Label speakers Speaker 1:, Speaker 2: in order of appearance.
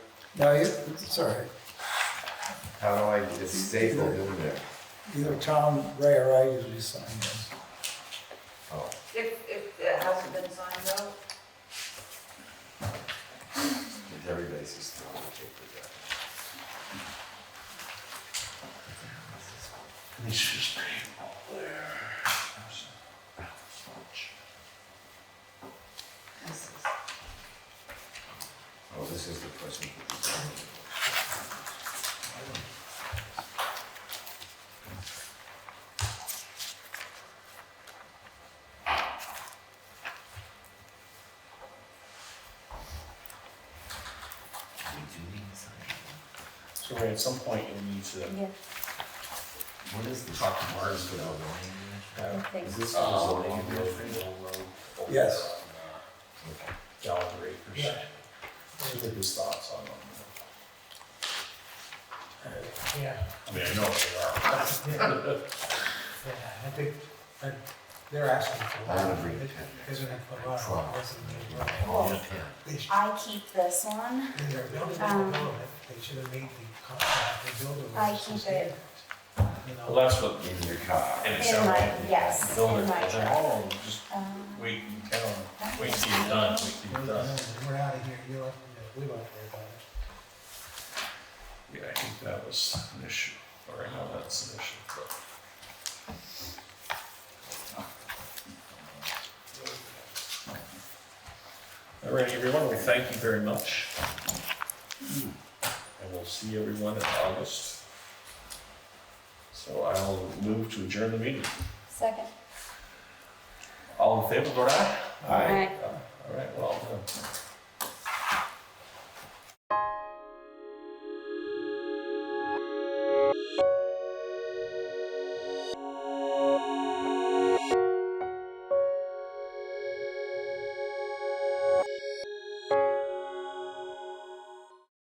Speaker 1: No, you- it's all right.
Speaker 2: How do I, it's stapled in there.
Speaker 1: Either Tom, Ray, or I usually sign this.
Speaker 2: Oh,
Speaker 3: If, if it hasn't been signed though,
Speaker 2: everybody's just throwing paper down.
Speaker 4: This is painful there.
Speaker 3: this is,
Speaker 2: Oh, this is the person. We do need to sign it.
Speaker 4: So Ray, at some point you'll need to,
Speaker 5: Yeah,
Speaker 2: What is this? Talk Mars for the zoning.
Speaker 5: I think.
Speaker 2: Is this for the
Speaker 3: Oh.
Speaker 4: uh,
Speaker 2: zoning? administration?
Speaker 1: Yes.
Speaker 2: Okay.
Speaker 4: Gallagher uh, Acres.
Speaker 1: Yeah.
Speaker 4: Just get his thoughts on them.
Speaker 6: Yeah,
Speaker 4: I mean, I know what they are.
Speaker 6: yeah, I think, that they're asking for a
Speaker 2: I
Speaker 6: lot.
Speaker 2: would agree.
Speaker 6: Isn't it for a lot?
Speaker 2: Trump.
Speaker 6: Isn't it?
Speaker 2: All in pen.
Speaker 6: They should,
Speaker 5: I keep this one,
Speaker 6: they are building, they
Speaker 5: Um,
Speaker 6: they should have made the contract, they build it.
Speaker 5: I keep it.
Speaker 6: You
Speaker 4: Well,
Speaker 6: know,
Speaker 4: that's what.
Speaker 2: In your car.
Speaker 4: and it
Speaker 5: In
Speaker 4: sounds
Speaker 5: my-
Speaker 4: like-
Speaker 5: yes,
Speaker 4: Build
Speaker 5: in
Speaker 4: it,
Speaker 5: my
Speaker 4: and then,
Speaker 5: truck.
Speaker 4: oh, just
Speaker 5: um,
Speaker 4: wait and tell them,
Speaker 5: that
Speaker 4: wait
Speaker 5: is
Speaker 4: till you're
Speaker 5: mine.
Speaker 4: done, wait till
Speaker 6: we're,
Speaker 4: you're done.
Speaker 6: we're out of here, you don't, we don't care about it.
Speaker 4: Yeah, I think that was an issue, or I know that's an issue, but. All right, everyone, we thank you very much. And we'll see everyone in August. So I'll move to adjourn the meeting.
Speaker 5: Second.
Speaker 4: All in favor, vote aye.
Speaker 2: All right.
Speaker 4: All right, well, done.